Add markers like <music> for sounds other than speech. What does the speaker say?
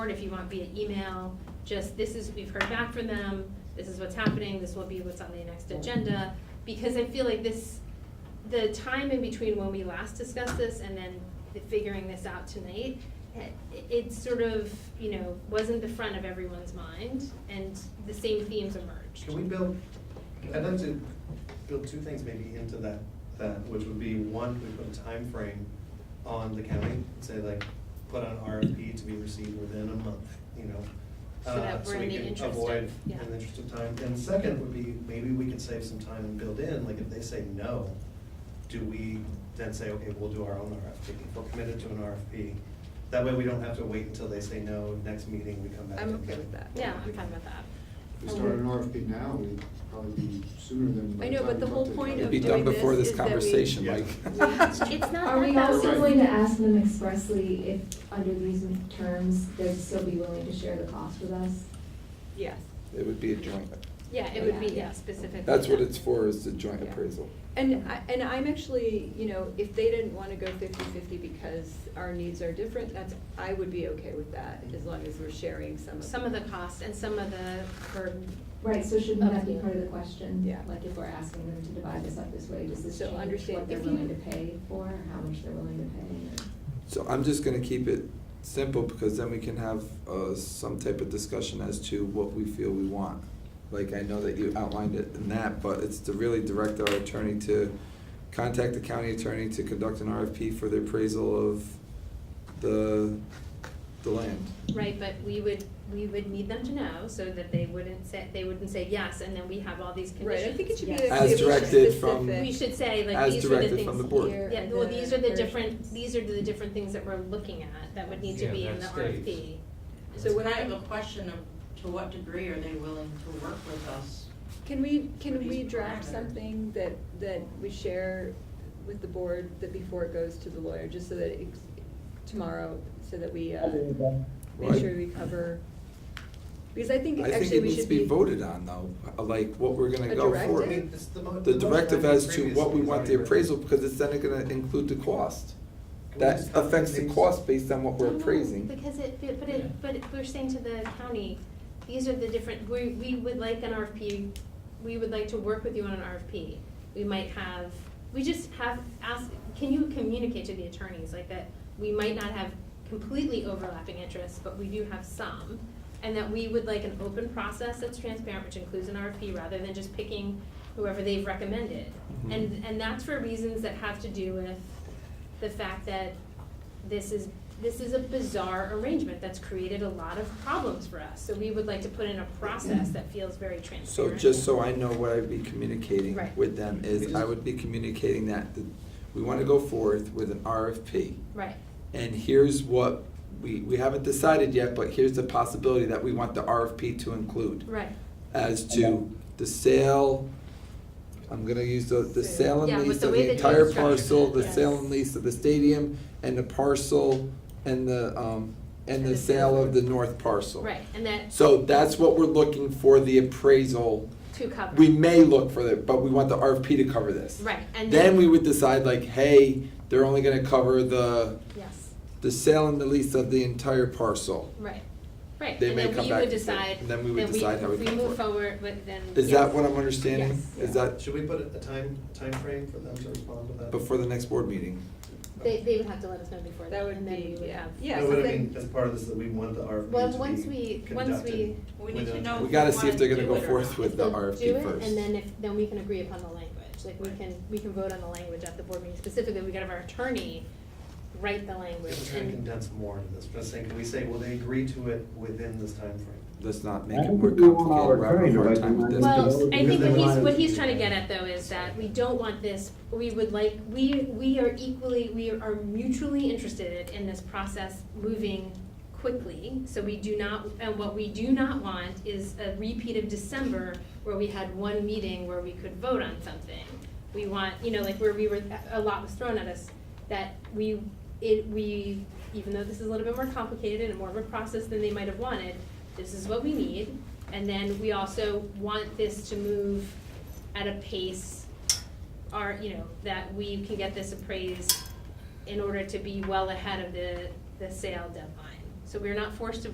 Or if you want via email, just this is, we've heard back from them, this is what's happening, this will be what's on the next agenda. Because I feel like this, the time in between when we last discussed this and then the figuring this out tonight, it, it sort of, you know, wasn't the front of everyone's mind and the same themes emerged. Can we build, I'd like to build two things maybe into that, that, which would be, one, we put a time frame on the county, say like, put on RFP to be received within a month, you know? So uh, that we're in the interest of- So we can avoid yeah. in the interest of time. And second would be, maybe we can save some time and build in, like if they say no, do we then say, okay, we'll do our own RFP, if we're committed to an RFP? That way we don't have to wait until they say no, next meeting we come back. I'm and- okay with that. Yeah, I'm fine with that. If we started an RFP now, we'd probably be sooner than. by I know, time but we the got whole to- point It'd of be doing done before this this is that we- conversation, Yeah. <laughs> Mike. It's not Are we that also Right. going to ask them expressly if, under these terms, they'd still be willing to share the cost with us? Yes, It would be a joint, Oh, Yeah, it would be, yeah, Yeah. specifically. that's what it's for, is the joint Yeah. appraisal. and I, and I'm actually, you know, if they didn't wanna go fifty-fifty because our needs are different, that's, I would be okay with that, as long as we're sharing some of. Some of the cost and some of the burden. Right, so shouldn't that be part of the question? Yeah. Like, if we're asking them to divide this up this way, does this So change understand what they're if you- willing to pay for, or how much they're willing to pay? or- So I'm just gonna keep it simple, because then we can have, uh, some type of discussion as to what we feel we want. Like, I know that you outlined it in that, but it's to really direct our attorney to contact the county attorney to conduct an RFP for the appraisal of the, the land. Right, but we would, we would need them to know so that they wouldn't say, they wouldn't say yes, and then we have all these Right, conditions. I think it should be. As actually be directed from- specific. We should say, like, As these are the directed things from the board. here- Here Yeah, well, are these the are the different, versions. these are the different things that we're looking at that would need to Yeah, be in the that RFP. stays. So when It's I, kind of a question of to what degree are they willing to work with us? can we, for can these we draft parameters? something that, that we share with the board that before it goes to the lawyer, just so that it's tomorrow, so that we, uh, make Right. sure we cover. Because I think I think actually it we needs to should be be. voted on though, like what we're gonna A go directive? for. I mean, it's the mo- The the motion directive I made as to what previously we is want the already appraisal, written. because it's then gonna include the cost. Can we That just have affects the these- cost based on what we're No, no, appraising. Because it, but- but Yeah. it, but it- we're saying to the county, these are the different, we, we would like an RFP, we would like to work with you on an RFP. We might have, we just have, ask, can you communicate to the attorneys, like that we might not have completely overlapping interests, but we do have some? And that we would like an open process that's transparent, which includes an RFP, rather than just picking whoever they've recommended. Mhm. And, and that's for reasons that have to do with the fact that this is, this is a bizarre arrangement that's created a lot of problems for us. So we would like to put in a process that feels very So transparent. just so I know what I'd be communicating Right. with them is, I would be communicating that the- we wanna go forth with an RFP. Right, And here's what, we, we haven't decided yet, but here's the possibility that we want the RFP to include. right. as to the sale, I'm gonna use the, the sale Yeah, and with lease the of way the that you entire structured parcel, it, the yes. sale and lease of the stadium, and the parcel, and the, um, and the sale of the north parcel. Right, and that So that's what we're looking for the appraisal, to cover. we may look for it, but we want the RFP to cover this. Right, and then. Then we would decide like, hey, they're only gonna cover the, Yes, the sale and the lease of the entire parcel. right, right. They may And come then we back would to it, decide. and then we would that decide how we if come move forward, forward. but then. Is yes. that what I'm understanding? Yes. Is that Should we put a time, frame for them to respond to that? before the next board meeting? They, they would have to let us know before That that, would and then we be, would yeah, have. yeah. No, so what I then- mean, as part of this, that we want the RFP Well, to once be we- once conducted we- We need to within- know We gotta if see we if they're wanna gonna go do it or forth not. with the They'll do RFP it, first. And then if, then we can agree upon the language, like we can, we can vote on the language at the board meeting, specifically, we gotta have our attorney write the language If we're trying to and. condense more into this, just saying, can we say, will they agree to it within this time frame? Let's not make I it think more we want complicated, our we're having a attorney hard to write time with the this. manual. Well, because- I think what he's, what he's trying to Because get at though is that we don't want this, we would like, we, we are equally, we are mutually interested in this process moving quickly. So we do not, and what we do not want is a repeat of December where we had one meeting where we could vote on something. We want, you know, like where we were, a lot was thrown at us, that we, it, we, even though this is a little bit more complicated and more of a process than they might have wanted, this is what we need. And then we also want this to move at a pace, our, you know, that we can get this appraised in order to be well ahead of the, the sale deadline. So we're not forced to